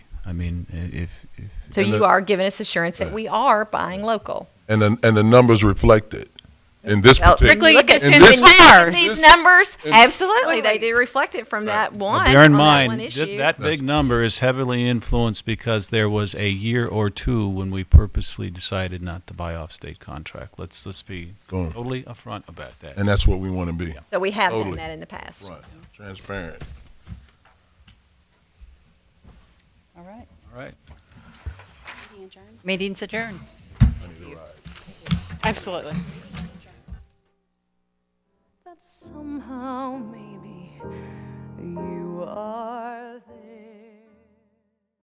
I mean, i- if, if So And you the- are giving us assurance that we are buying local. and the, and the numbers reflect it. In this Well, particular, Particularly look at just in And this- the stars. These This- numbers, and- absolutely, they do reflect it from that one. bear in on that mind one that, issue. that big number is heavily influenced because there was a year or two when we purposely decided not to buy off state contract. Let's let's be Go on. totally upfront about that. and that's what we want to be. So we have done Totally. that in the past. Right, transparent. All right. All right. Meeting's adjourned. Absolutely. that somehow maybe you are there.